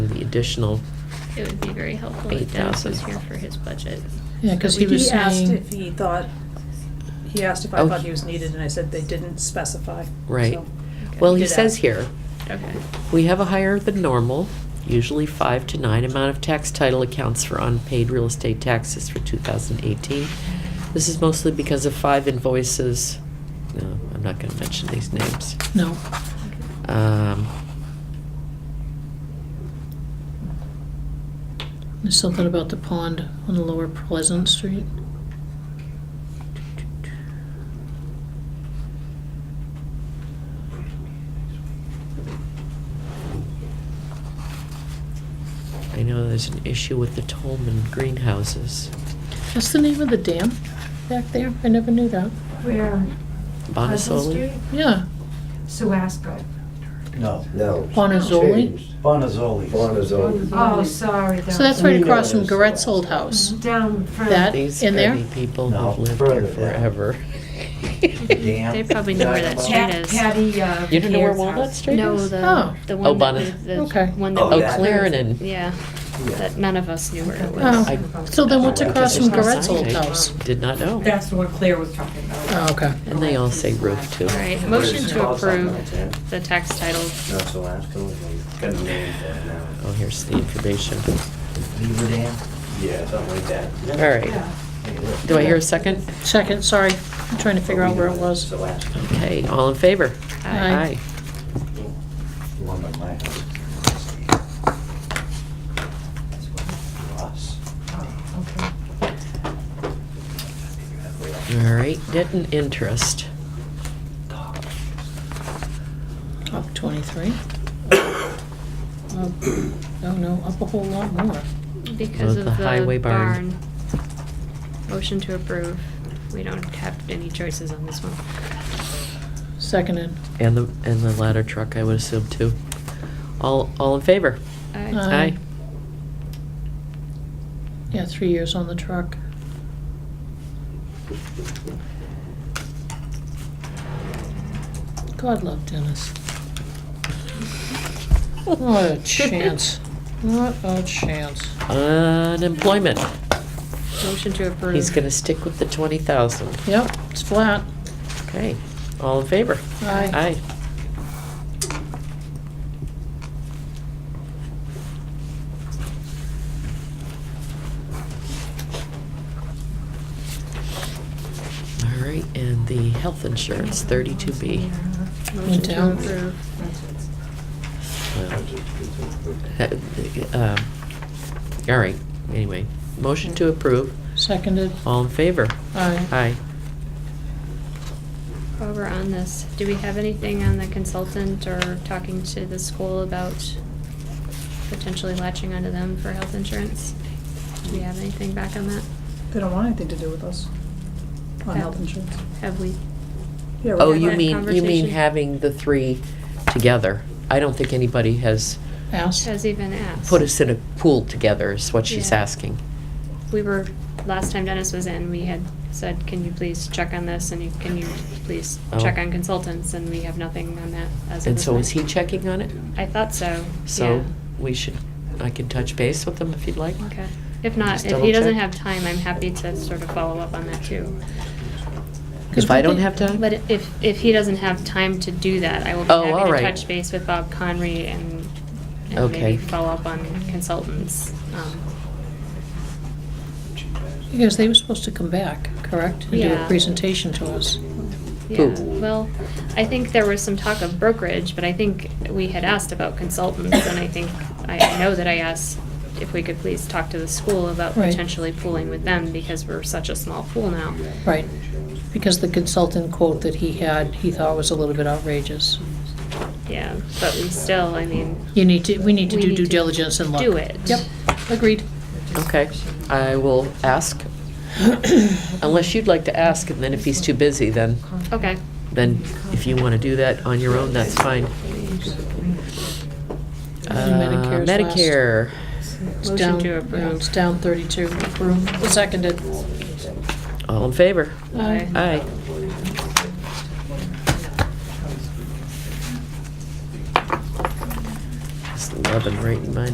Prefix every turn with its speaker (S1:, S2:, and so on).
S1: additional,
S2: It would be very helpful if Dennis was
S1: 8,000.
S2: here for his budget.
S3: Yeah, because he was
S4: asked
S3: saying,
S4: if he thought, he asked if
S1: Oh,
S4: I thought
S1: he-
S4: he was needed, and I said they didn't specify.
S1: Right.
S4: so-
S2: Okay.
S1: well, he
S4: Did
S1: says
S4: that.
S1: here,
S2: Okay,
S1: we have a higher than normal, usually five to nine amount of tax title accounts for unpaid real estate taxes for 2018. This is mostly because of five invoices, no, I'm not gonna mention these names.
S3: no,
S1: Um,
S3: there's something about the pond on the Lower Pleasant Street.
S1: I know there's an issue with the Tolman greenhouses,
S3: That's the name of the dam back there? I never knew that.
S5: Where? Pleasant
S1: Bonasoli.
S5: Street?
S3: Yeah,
S5: Suasco.
S6: No,
S7: No.
S3: Bonazzoli.
S7: Changed.
S6: Bonazzoli.
S7: Bonazoli.
S5: Oh, sorry.
S3: So that's right
S6: You know
S3: across from
S6: this.
S3: Goret's old house.
S5: Down front.
S3: That-
S1: These
S3: in there?
S1: dirty people
S6: No,
S1: have lived
S6: further
S1: there
S6: down.
S1: forever.
S6: Damn.
S2: They probably know where that
S6: Dynamite.
S2: street
S5: Pat-
S2: is.
S5: Patty, uh.
S1: You don't know where
S5: Pierre's
S1: Walnut
S5: house.
S1: Street
S2: no,
S1: is?
S3: Oh.
S2: the, the
S1: Oh,
S2: one that
S1: Bonnet.
S2: we- the
S3: Okay.
S2: one that
S6: Oh,
S1: Oh,
S2: we-
S6: that-
S1: Clarendon.
S2: Yeah,
S6: Yeah.
S2: that none of us knew where it was.
S3: Oh, so then what's across from Goret's old
S1: I
S3: house?
S1: Did not know.
S5: That's the one Claire was talking about.
S3: Oh, okay.
S1: And they all say roof too.
S2: All right,
S6: Where's
S2: motion
S6: the
S2: to
S6: house on
S2: approve
S6: that?
S2: the tax title.
S7: Not so last one, got the name there now.
S1: Oh, here's the information.
S6: Beaver Dam?
S7: Yeah, something like that.
S1: All right.
S5: Yeah.
S1: Do I hear a second?
S3: Second, sorry, I'm trying to figure out where it
S7: It's
S3: was.
S7: the last one.
S1: Okay, all in favor?
S3: Aye.
S6: The one by my house.
S5: Oh, okay.
S6: Ross.
S1: All right, debt and interest.
S3: Up 23. Up- Oh, no, up a whole lot more.
S2: Because
S1: Vote
S2: of
S1: the highway
S2: the
S1: barn.
S2: barn. Motion to approve. We don't have any choices on this one.
S3: Seconded.
S1: And the, and the ladder truck, I would assume too. All, all in favor?
S2: Aye.
S3: Aye. Yeah, three years on the truck. God love Dennis. Not a chance. Not a chance.
S1: Unemployment.
S2: Motion to approve.
S1: He's gonna stick with the twenty thousand.
S3: Yep, it's flat.
S1: Okay, all in favor?
S3: Aye.
S1: Aye. All right, and the health insurance, thirty-two B.
S2: Motion to
S3: Down.
S2: approve.
S1: Uh, All right, anyway, motion to approve,
S3: Seconded.
S1: all in favor?
S3: Aye.
S1: Aye.
S2: While we're on this, do we have anything on the consultant or talking to the school about potentially latching onto them for health insurance? Do we have anything back on that?
S4: They don't want anything to do with us on health insurance.
S2: Have we?
S4: Yeah, we
S1: Oh,
S4: have
S1: you
S4: that.
S1: mean, you mean
S2: conversation.
S1: having the three together? I don't think anybody has
S3: Asked.
S2: Has even asked?
S1: put us in a pool together, is what she's
S2: Yeah.
S1: asking.
S2: We were, last time Dennis was in, we had said, can you please check on this, and you, can you please check
S1: Oh.
S2: on consultants, and we have nothing on that as of
S1: And
S2: this
S1: so is he
S2: point.
S1: checking on it?
S2: I thought so,
S1: So
S2: yeah.
S1: we should, I can touch base with him if you'd like.
S2: Okay. If not,
S1: Just
S2: if
S1: double
S2: he doesn't
S1: check.
S2: have time, I'm happy to sort of follow up on that too.
S3: 'Cause
S1: If I
S3: we
S1: don't
S3: did-
S1: have time?
S2: But if, if he doesn't have time to do that, I will be
S1: Oh,
S2: happy
S1: all
S2: to
S1: right.
S2: touch base with Bob Conry and, and
S1: Okay.
S2: maybe follow up on consultants. Um,
S3: Because they were supposed to come back, correct? And do
S2: Yeah.
S3: a presentation to us.
S2: Yeah,
S1: Who?
S2: well, I think there was some talk of brokerage, but I think we had asked about consultants, and I think, I I know that I asked if we could please talk to the school about
S3: Right.
S2: potentially pooling with them, because we're such a small pool now.
S3: Right. Because the consultant quote that he had, he thought was a little bit outrageous.
S2: Yeah, but we still, I mean,
S3: You need to, we need to
S2: We
S3: do
S2: need
S3: due
S2: to
S3: diligence and look.
S2: do it.
S3: Yep, agreed.
S1: Okay, I will ask, unless you'd like to ask, and then if he's too busy, then,
S2: okay,
S1: then if you want to do that on your own, that's fine.
S3: And
S1: Uh,
S3: Medicare's last.
S1: Medicare,
S3: It's
S2: Motion
S3: down-
S2: to
S3: yeah,
S2: approve.
S3: It's down 32, approved, seconded.
S1: all in favor?
S2: Aye.
S1: Aye. Just loving writing my